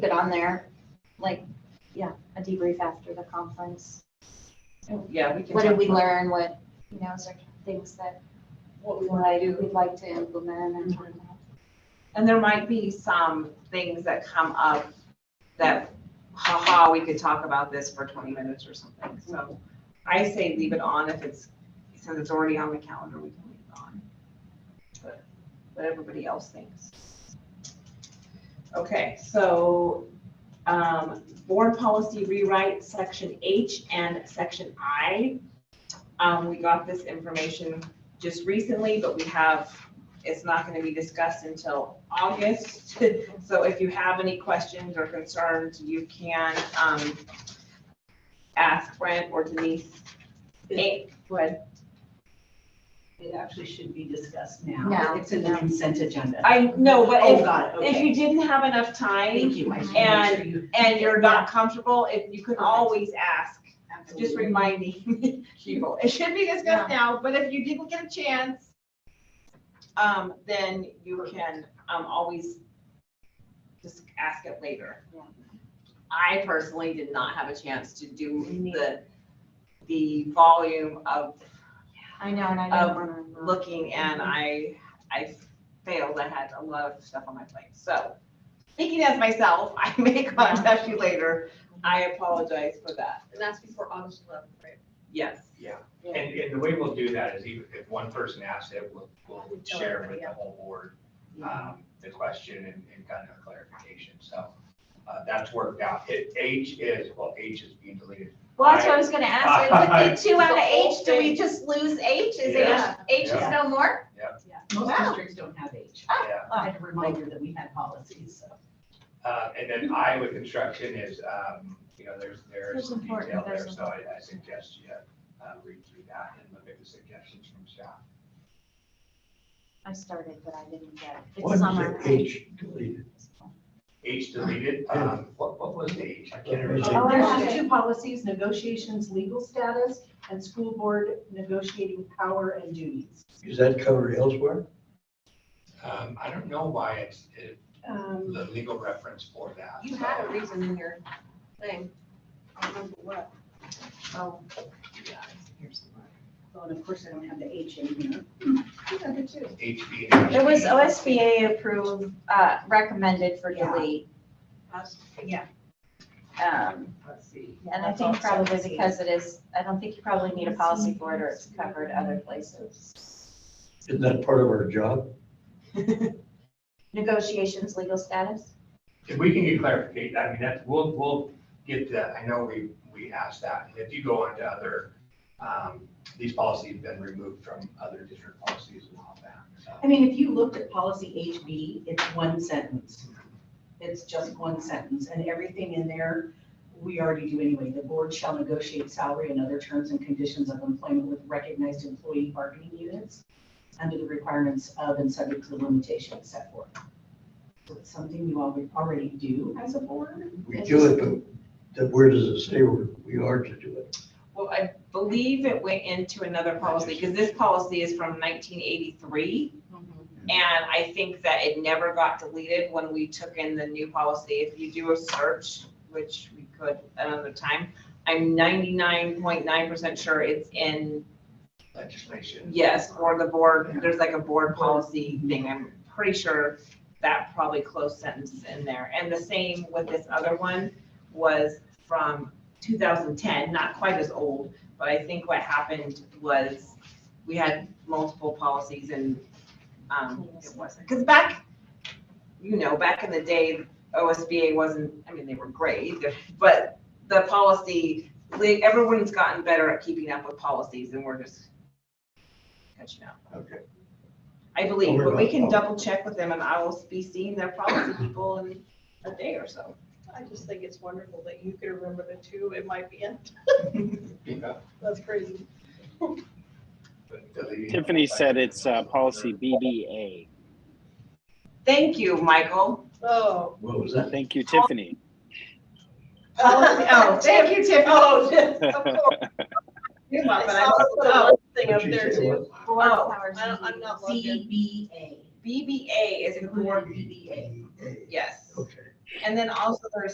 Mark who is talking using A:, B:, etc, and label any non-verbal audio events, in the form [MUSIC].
A: it on there, like, yeah, a debrief after the conference.
B: Yeah, we can.
A: What did
B: talk
A: we
B: about-
A: learn, what, you know, is there things that
B: What
A: we
B: we want to do.
A: we'd like to implement and turn out?
B: And there might be some things that come up that, haha, we could talk about this for twenty minutes or something. So I say leave it on if it's, since it's already on the calendar, we can leave it on. But What everybody else thinks. Okay, so, um, board policy rewrite, section H and section I. Um, we got this information just recently, but we have it's not gonna be discussed until August. [LAUGHS] So if you have any questions or concerns, you can, um, ask Brent or Denise. Eh, Go ahead.
C: It actually should be discussed now.
A: Now.
C: It's in the consent agenda.
B: I know, but
C: Oh,
B: if,
C: God,
B: if
C: okay.
B: you didn't have enough time
C: Thank you. I just
B: and-
C: wanted to make sure you-
B: and you're not comfortable, if, you can
C: Perfect.
B: always ask. Just
C: Absolutely.
B: reminding [LAUGHS] people, it should be discussed now, but if you didn't get a chance, um, then you can, um, always just ask it later.
A: Yeah.
B: I personally did not have a chance to do the, the volume of
A: I know, and I
B: Um,
A: don't want to.
B: looking and I, I failed. I had a lot of stuff on my plate. So speaking as myself, [LAUGHS] I may contact you later. I apologize for that.
D: And that's before August eleventh, right?
B: Yes.
E: Yeah, and, and the way we'll do that is even if one person asks it, we'll, we'll share with the whole board,
A: Mm-hmm.
E: um, the question and, and kind of clarification, so. Uh, that's worked out. It, H is, well, H is being deleted.
A: Well, that's what I was gonna ask,
E: [LAUGHS]
A: like, with the two out of
D: The whole
A: H, do we
D: thing.
A: just lose H? Is H,
D: Yeah.
A: H is
E: Yeah.
A: no more?
C: Most
A: Wow.
C: districts don't have H.
E: Yeah,
C: I had a reminder that we had policies, so.
E: uh, and then I with construction is, um, you know, there's, there's
A: That's
E: some
A: important,
E: detail there,
A: that's
E: so I, I suggest you, uh, read through that and look at the suggestions from staff.
A: I started, but I didn't get it. It's
F: Why
A: summer.
F: was the H deleted?
E: H deleted, um, what, what was the H? I can't
F: What
E: remember.
F: was it?
C: Um,
A: Oh,
C: There's
A: okay.
C: two policies, negotiations, legal status, and school board negotiating power and duties.
F: Is that covered elsewhere?
E: Um, I don't know why it's, it,
C: Um,
E: the legal reference for that. Um,
D: You had a
E: so-
D: reason in your thing. I don't remember what.
A: Oh,
C: Well, and of course, I don't have the H in here.
E: HB.
A: It was OSBA approved, uh, recommended for
C: Yeah.
A: delete.
C: Yeah.
A: Um,
C: Let's see.
A: And I think probably because it is, I don't think you probably need a policy for it or it's covered other places.
F: Isn't that part of our job?
A: Negotiations, legal status?
E: If we can get clarification, I mean, that's, we'll, we'll get that, I know we, we asked that, and if you go on to other, um, these policies have been removed from other district policies and all that,
C: [LAUGHS] I
E: so.
C: mean, if you looked at policy HB, it's one sentence. It's just one sentence, and everything in there, we already do anyway. The board shall negotiate salary and other terms and conditions of employment with recognized employee bargaining units under the requirements of and subject to the limitations set forth. So it's something you already, already do as a board.
F: We do it, but then where does it say we're- we are to do it?
B: Well, I believe it went into another policy because this policy is from nineteen eighty-three. And I think that it never got deleted when we took in the new policy. If you do a search, which we could another time, I'm ninety-nine point nine percent sure it's in,
E: Legislation.
B: yes, for the board. There's like a board policy thing. I'm pretty sure that probably closed sentence is in there. And the same with this other one was from 2010, not quite as old, but I think what happened was we had multiple policies and um, it wasn't, because back, you know, back in the day, OSBA wasn't, I mean, they were great, but the policy, like, everyone's gotten better at keeping up with policies and we're just catching up.
F: Okay.
B: I believe,
F: Over
B: but we
F: about
B: can
F: all.
B: double check with them and I will be seeing their policy people in a day or so.
D: I just think it's wonderful that you could remember the two it might be in.
E: Yeah,
D: That's crazy.
E: but uh, deleting-
G: Tiffany said it's uh, policy BBA.
B: Thank you, Michael.
D: Oh.
F: What was that?
G: Thank you, Tiffany.
B: Policy- Oh, thank Oh, you, Tiffany.
D: Oh, [LAUGHS] Of course.
B: You're
D: I
B: welcome. I
D: saw
B: just-
D: the
B: oh,
D: little thing up
F: What'd you
D: there
F: say it
D: too.
F: was?
A: Board
B: Oh,
A: powers
D: I
A: and
D: don't, I'm
A: duties.
D: not logged in.
C: CBA.
B: BBA is a board,
F: BBA.
B: yes.
F: Okay.
B: And then also there's